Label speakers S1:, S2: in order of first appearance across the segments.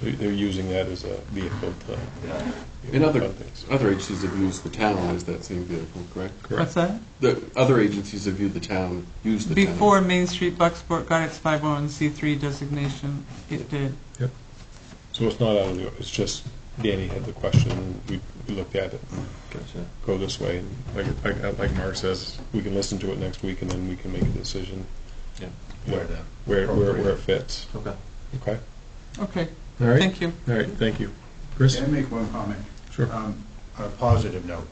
S1: They're they're using that as a vehicle to.
S2: Yeah.
S3: And other,
S1: fund things.
S3: other agencies have used the town as that same vehicle, correct?
S1: Correct.
S4: that?
S3: The other agencies have viewed the town, used the town.
S4: Before Main Street Bucksport got its 501c3 designation, it did.
S1: So it's not out of the, it's just Danny had the question, we we looked at it,
S3: Gotcha.
S1: go this way. and Like, like- like Mark says, we can listen to it next week and then we can make a decision
S3: Yeah.
S1: where, where, where where it fits.
S3: Okay.
S1: Okay?
S4: Okay,
S1: All right,
S4: thank you.
S1: all right, thank you. Chris?
S5: Can I make one comment?
S1: Sure.
S5: Um, On a positive note,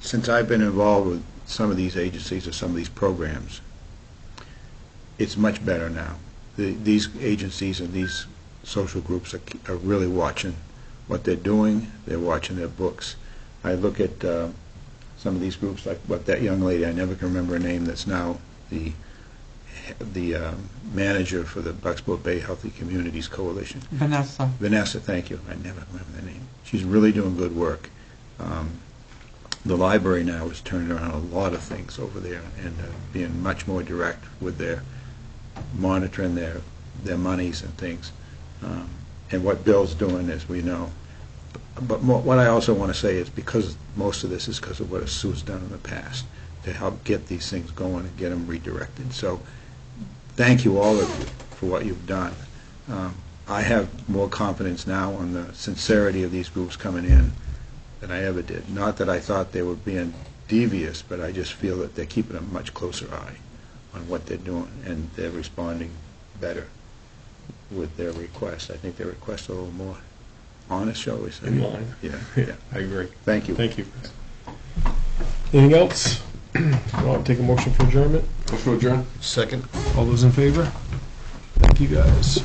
S5: since I've been involved with some of these agencies or some of these programs, it's much better now. The- These agencies and these social groups are ke- are really watching what they're doing, they're watching their books. I look at uh, some of these groups, like what that young lady, I never can remember her name, that's now the, the um, manager for the Bucksport Bay Healthy Communities Coalition.
S4: Vanessa.
S5: Vanessa, thank you. I never remember the name. She's really doing good work. Um, the library now has turned around a lot of things over there and uh, being much more direct with their monitoring their their monies and things. Um, and what Bill's doing, as we know. But mo- what I also want to say is because most of this is because of what Sue's done in the past to help get these things going and get them redirected. So thank you all of you for what you've done. Um, I have more confidence now on the sincerity of these groups coming in than I ever did. Not that I thought they were being devious, but I just feel that they're keeping a much closer eye on what they're doing, and they're responding better with their requests. I think their requests are a little more honest, shall we say.
S1: In line.
S5: Yeah, yeah.
S1: I agree.
S5: Thank you.
S1: Thank you, Chris. Anything else? Want to take a motion for adjournment?
S3: Motion to adjourn?
S1: All those in favor? Thank you, guys.